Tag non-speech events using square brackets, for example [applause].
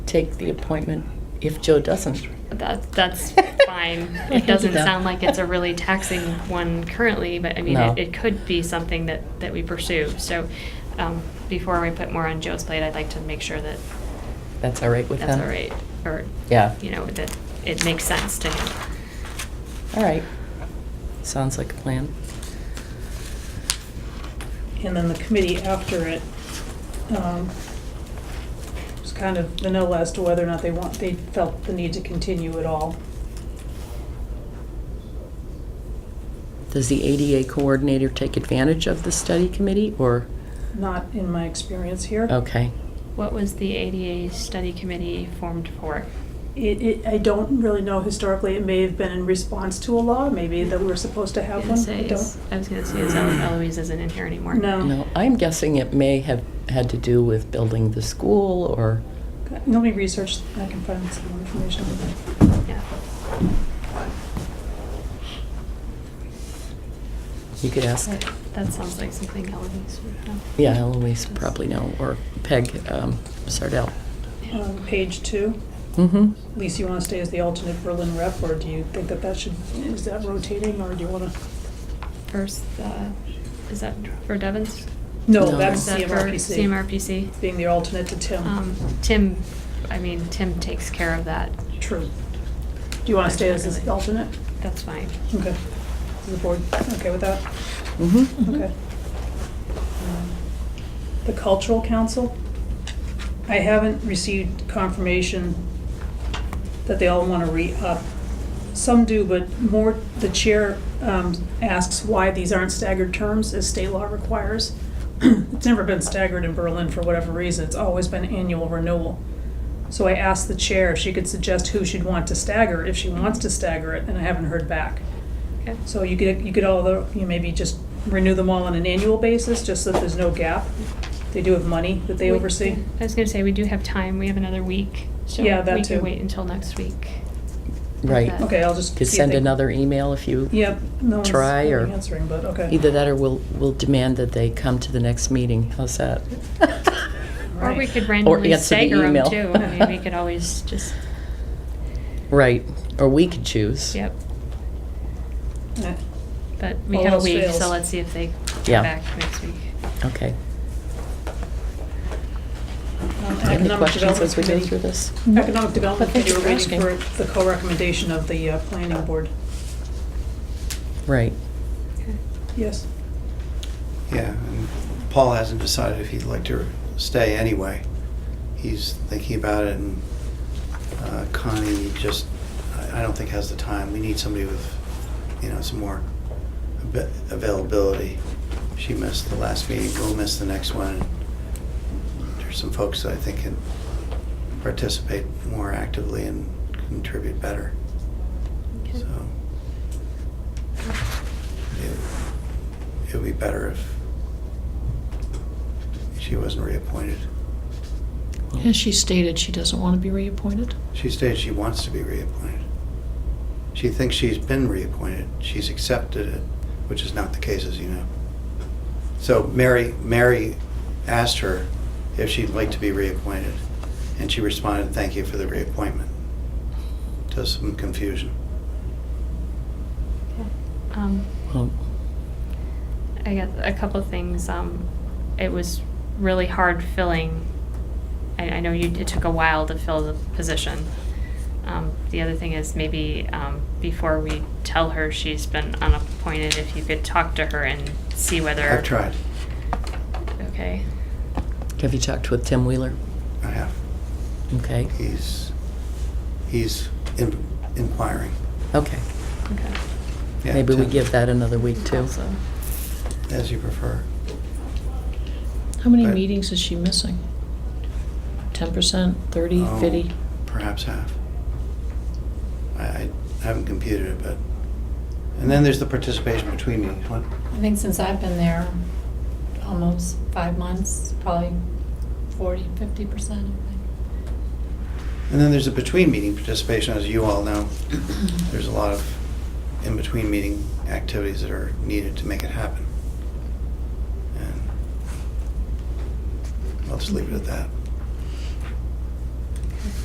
take the appointment if Joe doesn't. That, [laughs] that's fine. I can It do doesn't that. sound like it's a really taxing one currently, but I mean, No. it, it could be something that, that we pursue. So, um, before we put more on Joe's plate, I'd like to make sure that That's all right with them? that's all right, or, Yeah, you know, that it makes sense to him. all right. Sounds like a plan. And then the committee after it, um, was kind of vanilla as to whether or not they want, they felt the need to continue at all. Does the ADA coordinator take advantage of the study committee, or, Not in my experience here. okay, What was the ADA study committee formed for? It, it, I don't really know historically, it may have been in response to a law, maybe that we're supposed to have Gonna one. say I is- don't. I was gonna say, is Elo- [clears throat] Eloise isn't in here anymore. No. no, I'm guessing it may have had to do with building the school, or, Let me research, I can find some more information. on that. Yeah. you could ask, That that sounds like something Eloise would know. yeah, Eloise probably know, or Peg um, Sardell. Yeah. Um, page two, Mm-hmm. Lisa, you wanna stay as the alternate Berlin rep, or do you think that that should, is that rotating, or do you wanna? First, uh, is that for Devon's? No. No, Is that's that for CMRPC. CMRPC. Being the alternate to Tim. Um, Tim, I mean, Tim takes care of that. True. Do you want to stay as this alternate? That's fine. Okay. Is the board okay with that? Mm-hmm. Okay. Um, The cultural council? I haven't received confirmation that they all want to re-up. Some do, but more, the chair um, asks why these aren't staggered terms as state law requires. [clears throat] It's never been staggered in Berlin for whatever reason. It's always been annual renewal. So I asked the chair if she could suggest who she'd want to stagger, if she wants to stagger it, and I haven't heard back. Okay. So you could, you could all, the- you maybe just renew them all on an annual basis, just so that there's no gap. They do have money that they We- oversee. I was gonna say, we do have time. We have another week. so Yeah, that We too. can wait until next week. Right, Okay. Okay, I'll just. could see if send they- another email if you, Yep, no one's Try or- answering, but okay. either that or we'll, we'll demand that they come to the next meeting, how's [laughs] that? Or we Right. could randomly answer the stagger them email. too. I mean, we [laughs] could always just, Right, or we could choose. yep. Uh, But we All have a else week, so fails. let's see if they Yeah. come back next week. Okay. um, Any Economic questions as we go Development through this? Committee- Economic Development But thank Committee, you we're for waiting asking. for the co-recommendation of the uh, planning board. Right. Okay. Yes, Yeah, and Paul hasn't decided if he'd like to stay anyway. He's thinking about it, and uh, Connie just, I I don't think has the time. We need somebody with, you know, some more ab- availability. She missed the last meeting, we'll miss the next one. There's some folks that I think can participate more actively and contribute better, Okay. so. it- It would be better if she wasn't reappointed. Has she stated she doesn't want to be reappointed? She stated she wants to be reappointed. She thinks she's been reappointed. She's accepted it, which is not the case, as you know. So Mary, Mary asked her if she'd like to be reappointed, and she responded, "Thank you for the reappointment." To some confusion. Um, Well, I got a couple of things. Um, it was really hard filling. I, I know you, it took a while to fill the position. Um, the other thing is maybe um, before we tell her she's been unappointed, if you could talk to her and see whether. I've tried. Okay. Have you talked with Tim Wheeler? I have. Okay, He's he's in, inquiring. okay. Okay. Yeah, Maybe we Tim, give that another week too. Also, as you prefer. How many Right. meetings is she missing? Ten percent, thirty, Oh, fifty? Perhaps half. I, I haven't computed it, but, and then there's the participation between meetings. What, I think since I've been there, almost five months, probably 40, 50 percent. and then there's a between meeting participation, as you all know. There's a lot of in-between meeting activities that are needed to make it happen. And I'll just leave it at that.